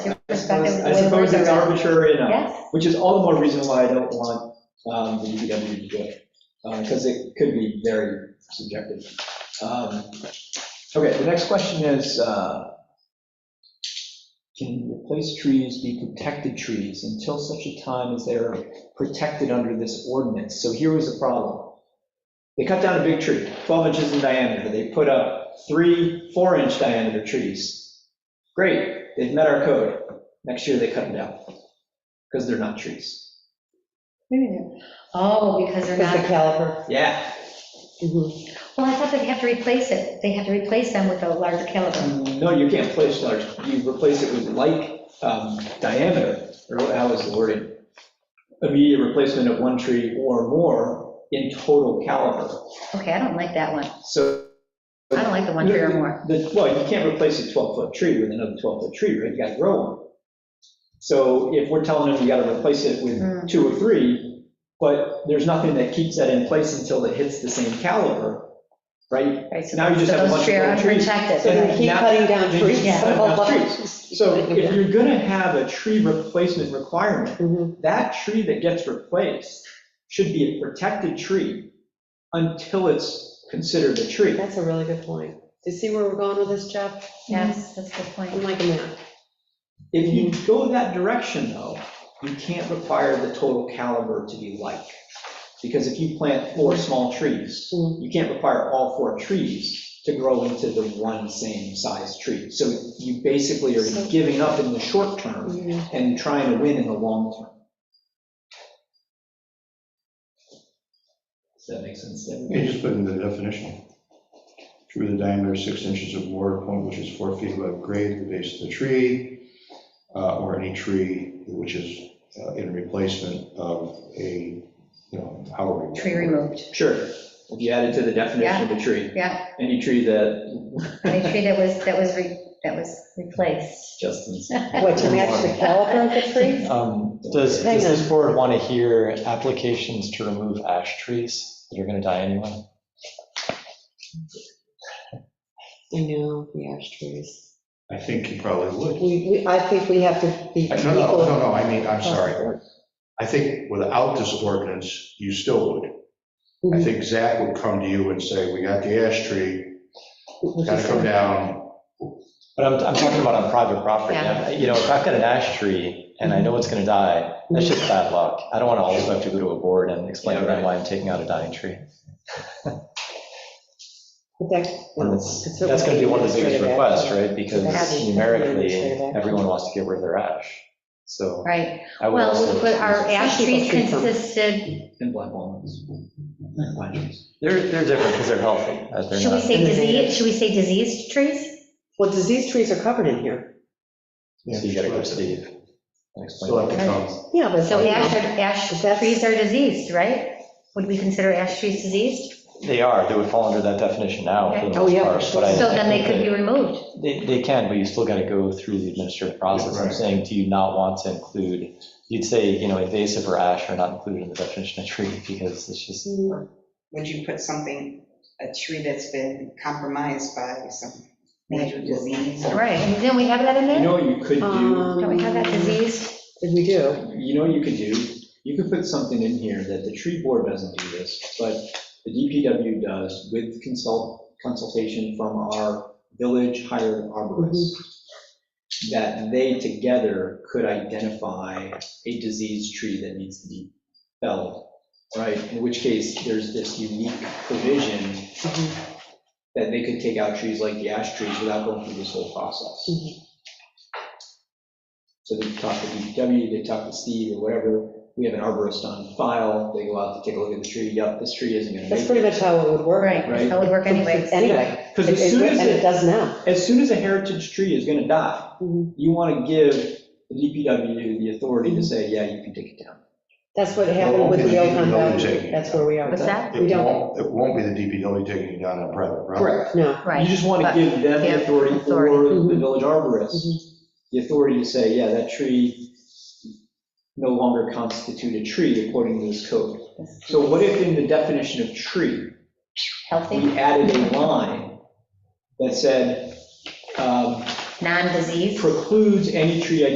expected suppose- way I suppose more it's than- arbitrary enough, Yes, which is all the more reason why I don't want um, the DPW to do it, because it could be very subjective. Um, Okay, the next question is, uh, can replaced trees be protected trees until such a time as they are protected under this ordinance? So here was the problem. They cut down a big tree, 12 inches in diameter, they put up three four-inch diameter trees. Great, they've met our code. Next year, they cut them down, because they're not trees. oh, because they're Because the not, caliber. Yeah. Mhm. well, I thought they'd have to replace it, they have to replace them with a larger caliber. No, you can't place large, you replace it with like um, diameter, or how is the wording? Immediate replacement of one tree or more in total caliber, Okay, I don't like that one, so. I don't like the one tree or more. The- Well, you can't replace a 12-foot tree with another 12-foot tree, right? You gotta grow one. So if we're telling them you gotta replace it Hmm. with two or three, but there's nothing that keeps that in place until it hits the same caliber, right? Right, so Now you just so have a those bunch tree of are little trees. unprotected, So they keep Now- cutting down trees. Yeah. Cutting down trees. Just keep So cutting if them you're gonna have a tree replacement requirement, down. Mm-hmm. Mhm. that tree that gets replaced should be a protected tree until it's considered a tree. That's a really good point. Do you see where we're going with this, Jeff? yes, that's a good point. I'm like a map. If you go that direction, though, you can't require the total caliber to be like. Because if you plant four small trees, Mhm. you can't require all four trees to grow into the one same size tree. So you basically So- are giving up in the short term Mm-hmm. Mhm. and trying to win in the long term. Does that make sense? You just put in the definition. True to the diameter six inches of water point, which is four feet above grade, at the base of the tree, uh, or any tree which is uh, in replacement of a, you know, however. Tree removed, Sure, if you add it to the definition of a tree, yeah, any tree that, any tree that was, that was, re- that was replaced. Justin's. What, to match the caliber of the tree? Um, Does, Hang does this board want to hear applications to remove ash trees that are going to die anyway? I know, the ash trees. I think you probably would. We, we, I think we have to be No, no, no, equal. no, I mean, I'm sorry. I think without this ordinance, you still would. I Mhm. think Zach would come to you and say, we got the ash tree, With gotta this come one. down. But I'm, I'm talking about on private property. Yeah. You know, if I've got an ash tree and I know it's going to die, that's just bad luck. I don't want to always have to go to a board and explain to them why I'm taking out a dying tree. But that- And no, that's, it's that's going to be one of the biggest administrative action. requests, right? That's Because the numerically, administrative action. everyone wants to get rid of their ash. So Right, I would well, also. but our ash Some people trees treat them- consisted, And black walnuts. Pine trees. They're, they're different because they're healthy. uh, they're should we not- say Innovative. disease, should we say diseased trees? Well, disease trees are covered in here. So you got to go to Steve. and explain. Still have to come. Yeah, but. So ash, are- But ash that's- trees are diseased, right? Would we consider ash trees diseased? They are, they would fall under that definition now, for the Oh, most yeah, part. for but I- sure. So then they could be removed. They, they can, but you still got to go through the administrative process. I'm Right. saying, do you not want to include, you'd say, you know, invasive or ash are not included in the definition of tree, because it's just, would you put something, a tree that's been compromised by some major disease? or- Right, and then we have that in You know there? what you could Um, do? Don't we have that diseased? We do. You know what you could do? You could put something in here that the tree board doesn't do this, but the DPW does with consult, consultation from our village hired arborist. That they together could identify a diseased tree that needs to be felled, right? In which case, there's this unique provision Mhm. that they could take out trees like the ash trees without going through this whole process. Mhm. So they talk to DPW, they talk to Steve or whatever, we have an arborist on file, they go out to take a look at the tree, yep, this tree isn't gonna That's make it. pretty much how it would work. Right, that would work anyway. Anyway. Because as It- it soon would- as, And it it- does now. as soon as a heritage tree is gonna die, Mhm. you wanna give the DPW the authority to say, yeah, you can take it down. That's what happened with the Oakland Valley. Taking it That's where we are. with What's that? We It don't, won't, it won't be the DPW taking you down on private property. no. You Right, just wanna but- give them yeah, the authority or authority. Mm-hmm. the Mhm. village arborist, Mhm. the authority to say, yeah, that tree no longer constitutes a tree according to this code. So what if in the definition of tree, healthy, we added a line that said um, non-diseased. precludes any tree